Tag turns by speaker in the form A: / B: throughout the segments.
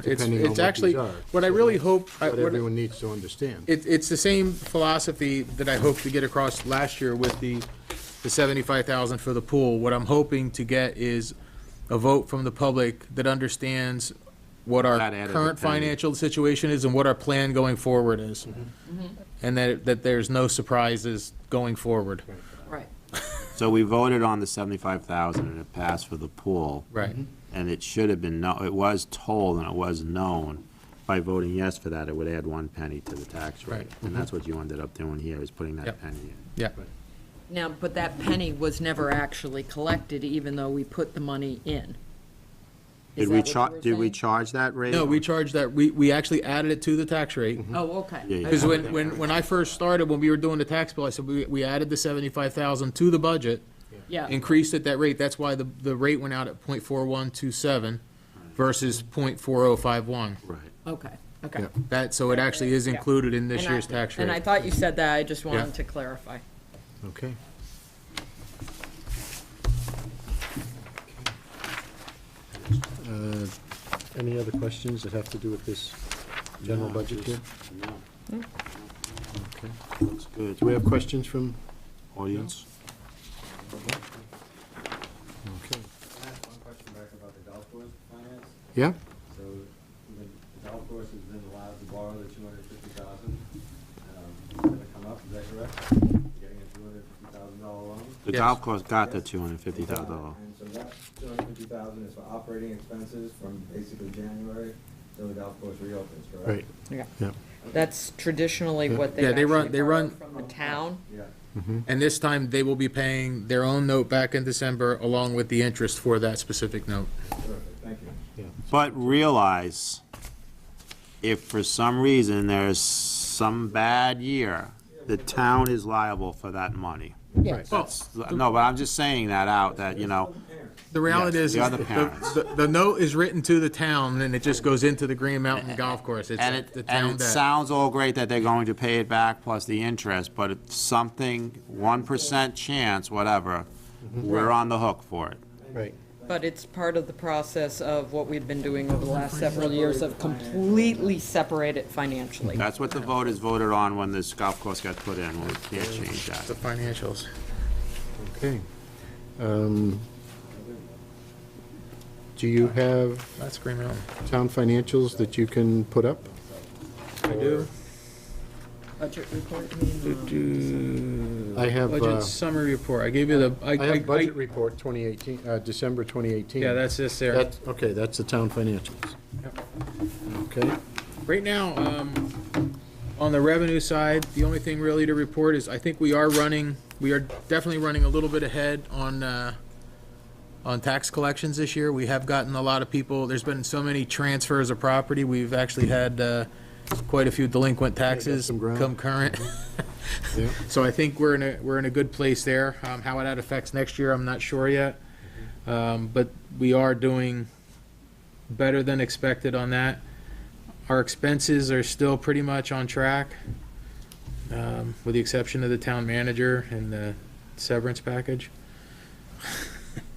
A: It's,
B: depending on
A: it's
B: what
A: actually,
B: these are.
A: what I really hope, I-
B: What
A: what-
B: everyone needs to understand.
A: it, it's the same philosophy that I hoped to get across last year with the, the seventy-five thousand for the pool. What I'm hoping to get is a vote from the public that understands what our
C: That added a
A: current
C: penny.
A: financial situation is and what our plan going forward is.
B: Mm-hmm.
A: And that, that there's no surprises going forward.
D: Right.
C: So we voted on the seventy-five thousand and it passed for the pool.
A: Right.
C: And it should have been, no, it was told and it was known, by voting yes for that, it would add one penny to the tax rate.
A: Right. Mm-hmm.
C: And that's what you ended up doing here, is putting that
A: Yep.
C: penny in.
A: Yeah,
D: Now, but that penny was never actually collected, even though we put the money in.
C: Did
D: Is
C: we
D: that what
C: char,
D: you were
C: did we
D: saying?
C: charge that rate?
A: no, we charged that, we, we actually added it to the tax rate.
D: Oh, okay.
C: hmm? Yeah, yeah.
A: Because when, when, when I first started, when we were doing the tax bill, I said, we, we added the seventy-five thousand to the budget,
D: Yeah.
A: increased at that rate, that's why the, the rate went out at point four one two seven versus point four oh five one.
C: Right.
D: okay, okay.
A: That, so it actually is
D: Yeah.
A: included in this
D: And I-
A: year's tax
D: And I
A: rate.
D: thought you said that, I just
A: Yeah.
D: wanted to clarify.
B: Okay. Uh, Any other questions that have to do with this general
C: No,
B: budget here?
C: just- No,
B: Okay.
C: looks good.
B: Do we have questions from,
C: Audience?
B: okay.
E: I have one question back about the golf course finance.
B: Yeah?
E: So the the golf course has been allowed to borrow the two hundred fifty thousand. um, It's going to come up, is that correct? Getting a two hundred fifty thousand dollar loan?
C: The
A: Yes.
C: golf course got the two hundred and fifty thousand dollar.
E: And so that two hundred fifty thousand is for operating expenses from basically January till the golf course reopens, correct?
B: Right,
D: Yeah.
B: yeah.
D: That's traditionally what they
A: Yeah, they run-
D: actually
A: they
D: borrow
A: run-
D: from the town.
E: Yeah.
A: And this time, they will be paying their own note back in December along with the interest for that specific note.
E: Perfect, thank you.
C: But realize, if for some reason there's some bad year, the town is liable for that money.
B: Yes.
C: That's- No, but I'm just saying that out, that, you know,
A: The reality
C: Yes,
A: is,
C: the
A: is
C: other
A: the-
C: parents.
A: the, the note is written to the town, and it just goes into the Green Mountain Golf Course. It's
C: and
A: the
C: it,
A: town
C: and it
A: debt.
C: sounds all great that they're going to pay it back plus the interest, but it's something, one percent chance, whatever,
A: Mm-hmm.
C: we're on the hook for it.
B: Right.
D: But it's part of the process of what we've been doing over the last several years of completely separate it financially.
C: That's what the voters voted on when this golf course got put in, we can't change that.
A: The financials.
B: Okay. Um, Do you have
A: That's Green Mountain.
B: town financials that you can put up?
A: I do.
D: Budget report, I mean,
B: I have, uh,
A: Budget summary report, I gave you the, I,
B: I have
A: I, I-
B: budget report 2018, uh, December 2018.
A: yeah, that's this there.
B: That's, okay, that's the town financials. Okay,
A: Right now, um, on the revenue side, the only thing really to report is, I think we are running, we are definitely running a little bit ahead on, uh, on tax collections this year. We have gotten a lot of people, there's been so many transfers of property, we've actually had, uh, quite a few delinquent taxes
B: some ground.
A: come current.
B: yeah,
A: So I think we're in a, we're in a good place there. Um, how that affects next year, I'm not sure yet.
B: Mm-hmm.
A: Um, but we are doing better than expected on that. Our expenses are still pretty much on track, um, with the exception of the town manager and the severance package.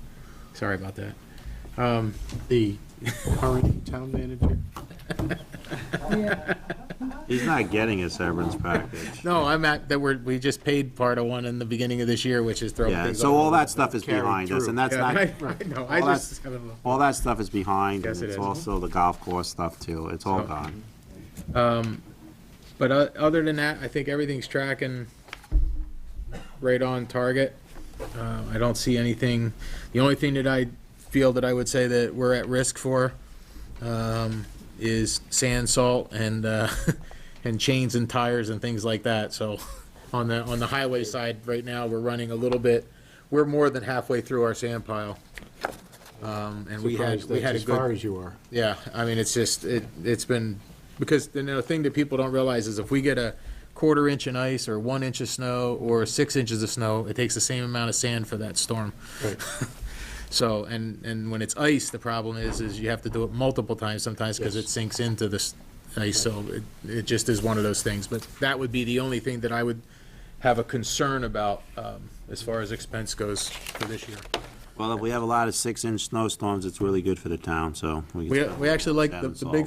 A: Sorry about that. Um,
B: the current town manager.
C: He's not getting his severance package.
A: no, I'm at, that we're, we just paid part of one in the beginning of this year, which is throwing
C: Yeah,
A: things
C: so
A: off.
C: all that stuff is
B: Carried
C: behind us,
B: through.
C: and that's
A: Yeah,
C: not,
A: I- I know, I
C: all
A: just.
C: all that stuff is behind,
A: Yes,
C: and
A: it
C: it's
A: is.
C: also the golf course stuff too, it's all
A: So-
C: gone.
A: Um, But o- other than that, I think everything's tracking right on target. Uh, I don't see anything, the only thing that I feel that I would say that we're at risk for um, is sand, salt, and, uh, and chains and tires and things like that. So on the, on the highway side, right now, we're running a little bit, we're more than halfway through our sand pile. Um, And we had,
B: Surprised
A: we
B: that's
A: had a
B: As
A: good.
B: far as you are.
A: Yeah, I mean, it's just, it, it's been, because, you know, the thing that people don't realize is if we get a quarter inch in ice, or one inch of snow, or six inches of snow, it takes the same amount of sand for that storm.
B: Right.
A: So, and, and when it's ice, the problem is, is you have to do it multiple times sometimes, because it sinks into the s- ice, so it, it just is one of those things. But that would be the only thing that I would have a concern about, um, as far as expense goes for this year.
C: Well, if we have a lot of six-inch snowstorms, it's really good for the town, so.
A: We,
C: can-
A: we actually like
C: That
A: the,
C: is
A: the
C: all.
A: big